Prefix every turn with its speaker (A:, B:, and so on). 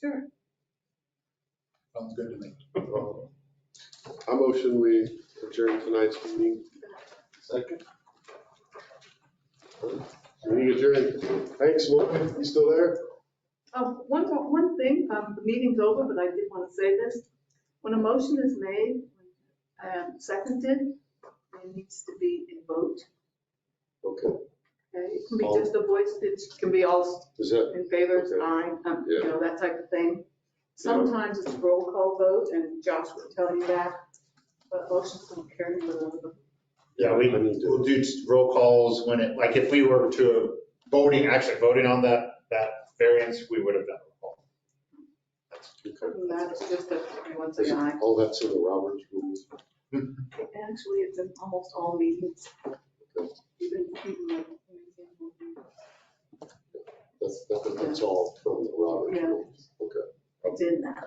A: Sure.
B: Sounds good to me.
C: Uh, I motion we adjourn tonight's meeting. Second. Meeting adjourned. Thanks, Morgan. You still there?
A: Um, one, more- one thing, um, the meeting's over, but I did want to say this. When a motion is made and seconded, it needs to be in vote,
C: Okay.
A: okay? It can be just a voice, it can be all
C: Is that,
A: in favor,
C: Okay.
A: aye, um, you know, that type of thing. Sometimes it's a roll call vote, and Josh will tell you that, but motions don't carry the,
B: Yeah, we,
C: I need to-
B: we'll do roll calls when it, like, if we were to voting, actually voting on that, that variance, we would have done a roll
C: okay.
A: that is just a, everyone's
C: Is
A: an
C: it-
A: aye.
C: all that's in the Roberts rules?
A: Actually, it's in almost all meetings. Even, even like, for example,
C: That's, that- that's all from the Roberts
A: Yeah.
C: rules. Okay.
A: it's in that.